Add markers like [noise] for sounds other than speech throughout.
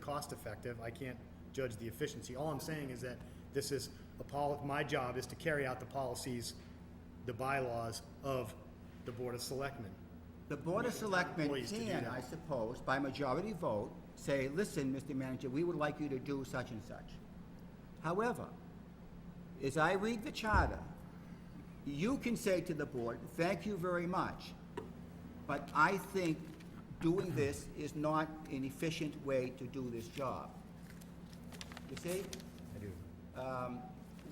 cost effective. I can't judge the efficiency. All I'm saying is that this is a pol, my job is to carry out the policies, the bylaws of the Board of Selectmen. The Board of Selectmen Employees to do can, that. I suppose, by majority vote, say, listen, Mr. Manager, we would like you to do such and such. However, as I read the charter, you can say to the board, thank you very much, but I think doing this is not an efficient way to do this job. You see? I do. um,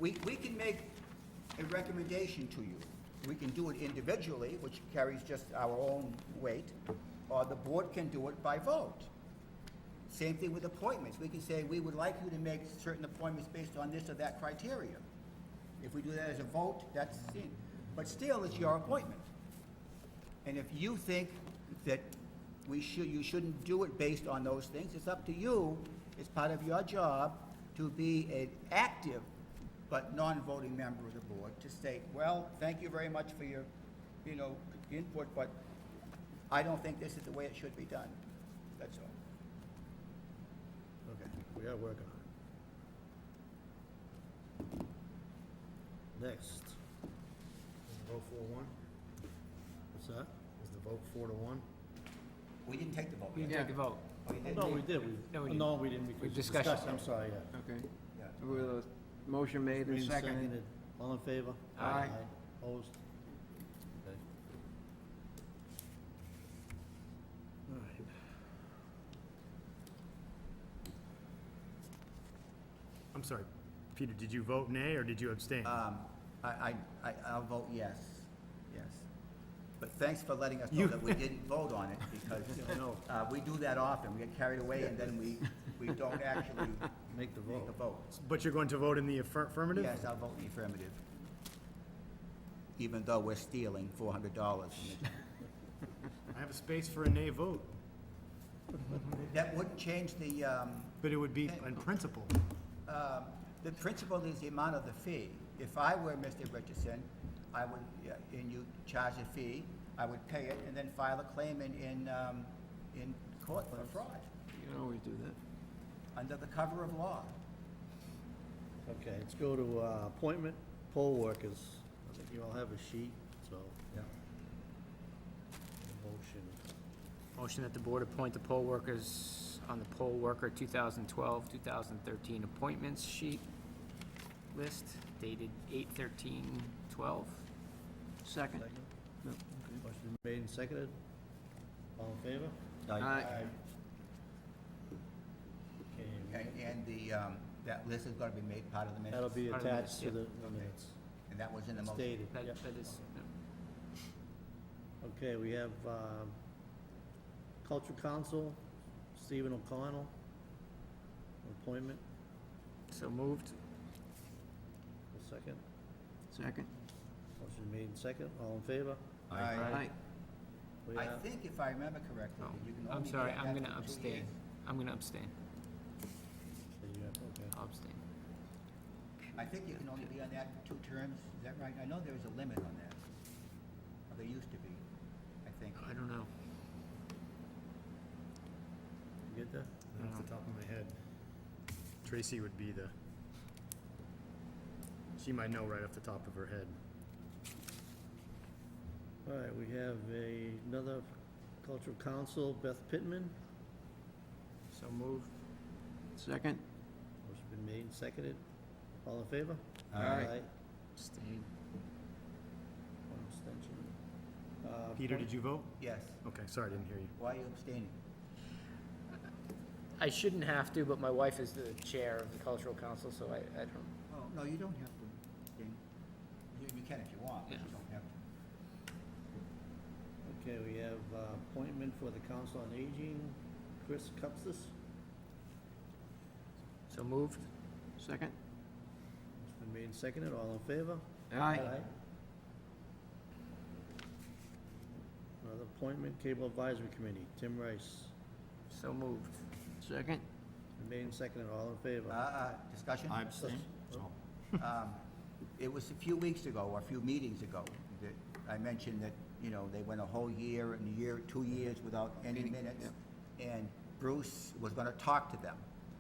we, we can make a recommendation to you. We can do it individually, which carries just our own weight, or the board can do it by vote. Same thing with appointments. We can say, we would like you to make certain appointments based on this or that criteria. If we do that as a vote, that's it. But still, it's your appointment. And if you think that we should, you shouldn't do it based on those things, it's up to you, it's part of your job to be an active but non-voting member of the board, to state, well, thank you very much for your, you know, input, but I don't think this is the way it should be done. That's all. Okay, we are working on it. Next, Was the vote four to one? what's that? Was the vote four to one? We didn't take the vote We yet. can take a vote. Oh, you did? No, we did, No, we we, didn't. no, we didn't, because We we discussed discussed, it. I'm sorry, yeah. Okay, Yeah. with a motion made and Green seconded. seconded. All in favor? Aye. Opposed? Okay. All right. I'm sorry, Peter, did you vote nay or did you abstain? Um, I, I, I, I'll vote yes, yes. But thanks for letting us know You- that we didn't vote on it, [laughs] because, uh, we do that often, we get carried away, and then we, we don't actually [laughs] Make the make a vote. vote. But you're going to vote in the affir- affirmative? Yes, I'll vote in the affirmative, even though we're stealing four hundred dollars. [laughs] I have a space for a nay vote, That wouldn't change the, um, but it would be on principle. um, the principal is the amount of the fee. If I were Mr. Richardson, I would, yeah, and you charge a fee, I would pay it, and then file a claim in, in, um, in court for fraud, You can always do that. under the cover of law. Okay, let's go to uh, appointment poll workers. I think you all have a sheet, so. Yeah. Motion. Motion that the board appoint the poll workers on the poll worker 2012, 2013 appointments sheet list dated 8/13/12. Second. Second? No, okay. Motion made and seconded. All in favor? Aye. Okay, And, and the, um, that list is gonna be made part of the that'll minutes, be Part of the attached to the minutes, the minutes. and that was in the motion. Stated, That, yeah. that is, Okay, we have um, Culture Council, Stephen O'Connell, appointment, so moved. a second. Second. Motion made and second. All in favor? I, Aye. We I have- think if I remember correctly, Oh, you can I'm only sorry, get that I'm gonna for two abstain. years. I'm gonna abstain. you have- okay. I'll abstain. I think you can only be on that for two terms, is that right? I know there was a limit on that, or there used to be, I think. I don't know. You get that? Not off the top of my head. Tracy would be the, she might know right off the top of her head. All right, we have a- another Cultural Council, Beth Pittman. So moved. Second. Motion been made and seconded. All in favor? Uh, Aye. Abstain. One abstention. Uh, Peter, did you vote? Yes, Okay, sorry, I didn't hear you. why are you abstaining? I shouldn't have to, but my wife is the chair of the cultural council, so I, I don't, Oh, no, you don't have to, Dean. You, you can if you want, but you don't have to. Okay, we have uh, appointment for the Council on Aging, Chris Cupsis. so moved. Second. Motion been made and seconded. All in favor? Aye. Another appointment, Cable Advisory Committee, Tim Rice. So moved. Second. Been Made and seconded. All in favor? Uh, uh, discussion? Abstain. Oh, Um, It was a few weeks ago, or a few meetings ago, that I mentioned that, you know, they went a whole year and a year, two years without any Any- minutes. And Bruce was gonna talk to them.